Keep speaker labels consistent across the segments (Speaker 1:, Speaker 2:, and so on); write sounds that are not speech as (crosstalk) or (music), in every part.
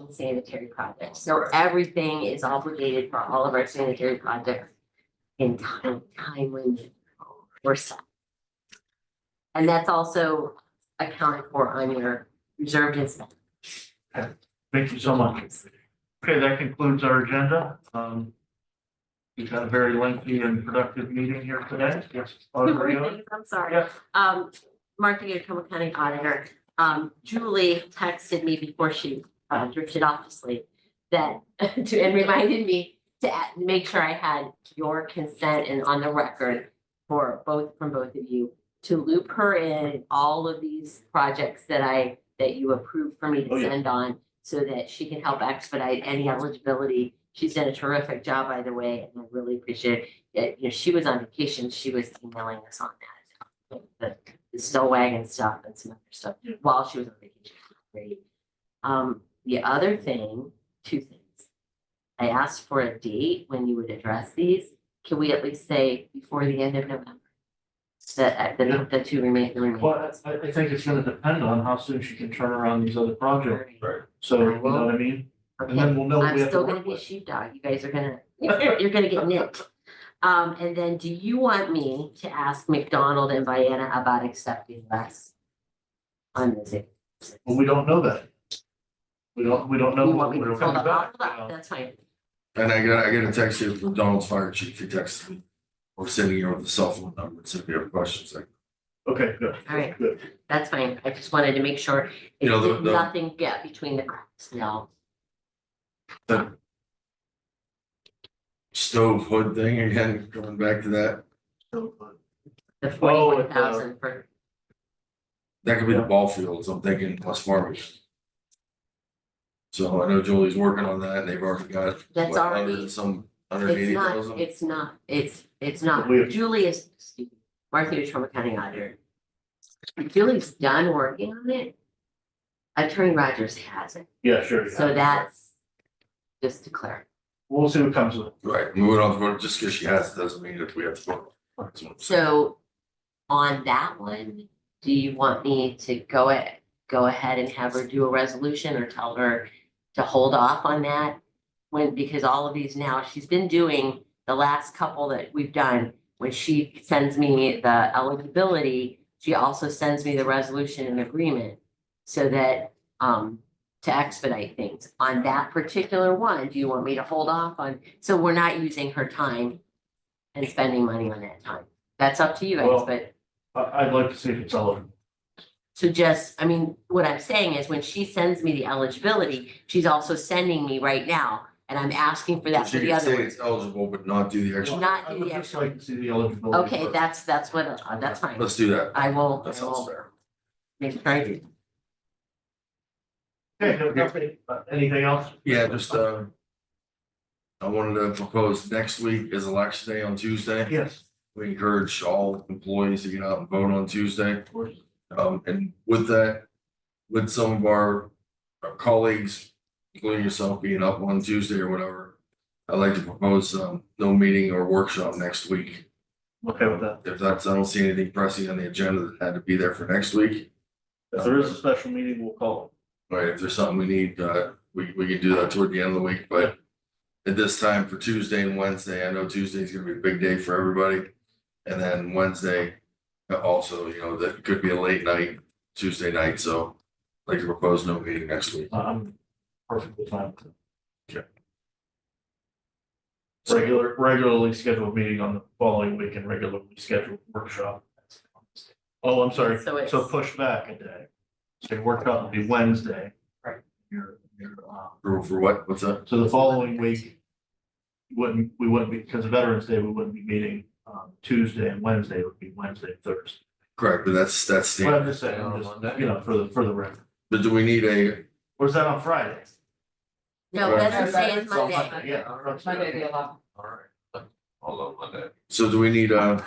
Speaker 1: and sanitary projects. So everything is obligated for all of our sanitary projects in time, timely or some. And that's also accounted for on your reserved and spent.
Speaker 2: Thank you so much. Okay, that concludes our agenda. Um. We've had a very lengthy and productive meeting here today. Yes,
Speaker 1: (laughs)
Speaker 2: Audrey, uh,
Speaker 1: I'm sorry.
Speaker 2: Yeah.
Speaker 1: Um, Martha Yacoma County Auditor, um, Julie texted me before she uh, drifted off to sleep that, (laughs) to- and reminded me to add- make sure I had your consent and on the record for both, from both of you, to loop her in all of these projects that I, that you approved for me
Speaker 2: Oh,
Speaker 1: to
Speaker 2: yeah.
Speaker 1: send on so that she can help expedite any eligibility. She's done a terrific job, by the way, and I really appreciate it. Yeah, you know, she was on vacation, she was emailing us on that. The, the snow wagon stuff and some other stuff while she was on vacation. Great. Um, the other thing, two things. I asked for a date when you would address these. Can we at least say before the end of November? uh, The, the, the two remain, the remaining.
Speaker 2: well, I, I think it's gonna depend on how soon she can turn around these other projects. So, you know what I mean? And
Speaker 1: Okay,
Speaker 2: then we'll know what
Speaker 1: I'm
Speaker 2: we have to
Speaker 1: still gonna
Speaker 2: work
Speaker 1: be a
Speaker 2: with.
Speaker 1: sheepdog. You guys are gonna, (laughs) you're gonna get nipped. Um, and then do you want me to ask McDonald and Vienna about accepting less? On this, if
Speaker 2: Well, we don't know that. We don't, we don't know.
Speaker 1: you
Speaker 2: what
Speaker 1: want me
Speaker 2: we're
Speaker 1: to hold
Speaker 2: gonna
Speaker 1: up, hold
Speaker 2: back,
Speaker 1: up,
Speaker 2: you know.
Speaker 1: that's fine.
Speaker 3: And I got, I got a text here from Donald's fire chief, he texted me, we're sitting here with a cell phone number, so if you have questions, like,
Speaker 2: Okay, good.
Speaker 1: All right.
Speaker 2: Good.
Speaker 1: That's fine. I just wanted to make sure it
Speaker 3: You know, the-
Speaker 1: did
Speaker 3: the-
Speaker 1: nothing get between the cracks. No,
Speaker 3: stove hood thing again, coming back to that.
Speaker 2: So, uh,
Speaker 1: the
Speaker 2: Oh,
Speaker 1: forty-one
Speaker 2: it's, uh,
Speaker 1: thousand for,
Speaker 3: That could be the ball fields, I'm thinking West Farming. So I know Julie's working on that, and they've already got.
Speaker 1: That's
Speaker 3: what, under
Speaker 1: already-
Speaker 3: Some under
Speaker 1: it's
Speaker 3: eighty
Speaker 1: not,
Speaker 3: thousand.
Speaker 1: it's not, it's, it's not.
Speaker 2: We-
Speaker 1: Julie is, excuse me, Martha is from a county auditor. Julie's done working on it. Attorney Rogers hasn't,
Speaker 2: Yeah, sure. yeah.
Speaker 1: so that's just to clarify.
Speaker 2: We'll see what comes with it.
Speaker 3: Right, moving on, to- just because she has, it doesn't mean that we have to. vote. That's what I'm saying.
Speaker 1: So on that one, do you want me to go a- go ahead and have her do a resolution or tell her to hold off on that? When, because all of these now, she's been doing the last couple that we've done, when she sends me the eligibility, she also sends me the resolution and agreement so that, um, to expedite things. On that particular one, do you want me to hold off on, so we're not using her time and spending money on that time? That's up to you guys,
Speaker 2: Well-
Speaker 1: but
Speaker 2: I, I'd like to see if it's eligible.
Speaker 1: so just, I mean, what I'm saying is when she sends me the eligibility, she's also sending me right now. And I'm asking for that for
Speaker 3: She
Speaker 1: the
Speaker 3: could
Speaker 1: other
Speaker 3: say
Speaker 1: one.
Speaker 3: it's eligible, but not do the extra,
Speaker 1: Not
Speaker 2: I
Speaker 1: do
Speaker 2: would
Speaker 1: the
Speaker 2: just
Speaker 1: actual-
Speaker 2: like to see the eligibility.
Speaker 1: Okay,
Speaker 2: first.
Speaker 1: that's, that's what, uh, that's fine.
Speaker 3: let's do that,
Speaker 1: I will,
Speaker 3: that
Speaker 1: I
Speaker 3: sounds
Speaker 1: will
Speaker 3: fair.
Speaker 1: make sure I do.
Speaker 2: Okay, no, nothing, uh, anything else?
Speaker 3: Yeah, just, uh. I wanted to propose next week is election day on Tuesday.
Speaker 2: Yes.
Speaker 3: We encourage all employees to get out and vote on Tuesday. Um, and with that, with some of our our colleagues, including yourself being up on Tuesday or whatever. I'd like to propose, um, no meeting or workshop next week.
Speaker 2: Okay with that.
Speaker 3: If that's, I don't see anything pressing on the agenda that had to be there for next week.
Speaker 2: If there is a special meeting, we'll call
Speaker 3: Right, if there's something we need, uh, we, we can do that toward the end of the week, but. At this time for Tuesday and Wednesday, I know Tuesday's gonna be a big day for everybody. And then Wednesday, uh, also, you know, that could be a late night, Tuesday night, so. I'd Like to propose no meeting next week.
Speaker 2: it. Uh, I'm perfectly fine with it.
Speaker 3: Okay.
Speaker 2: Regular, regularly scheduled meeting on the following week and regularly scheduled workshop. Oh, I'm sorry.
Speaker 1: So it's-
Speaker 2: So push back a day. So your workshop will be Wednesday.
Speaker 1: Right.
Speaker 2: Your, your, um,
Speaker 3: For, for what, what's that?
Speaker 2: so the following week, wouldn't, we wouldn't be, because of Veterans Day, we wouldn't be meeting, um, Tuesday and Wednesday, it would be Wednesday, and Thursday.
Speaker 3: Correct, but that's, that's
Speaker 2: But
Speaker 3: the,
Speaker 2: I'm just saying, I'm just, you know, for the, for the record,
Speaker 3: but do we need a,
Speaker 2: or is that on Friday?
Speaker 1: No, it
Speaker 3: Right.
Speaker 1: doesn't say it's
Speaker 2: It's on
Speaker 1: Monday.
Speaker 2: Yeah.
Speaker 4: Monday, the eleventh.
Speaker 5: Although Monday.
Speaker 3: so do we need uh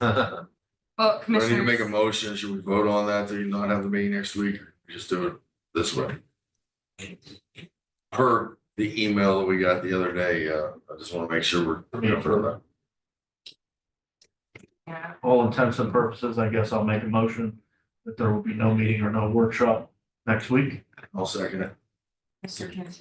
Speaker 4: Well,
Speaker 3: do I need to make a
Speaker 4: commissioners,
Speaker 3: motion? Should we vote on that to not have the meeting next week? Just do it this way. Per the email that we got the other day, uh, I just want to make sure we're.
Speaker 2: Yeah, for
Speaker 4: yeah,
Speaker 2: All intents and purposes, I guess I'll make a motion that there will be no meeting or no workshop next week.
Speaker 3: I'll second it.
Speaker 4: Mr. Kim.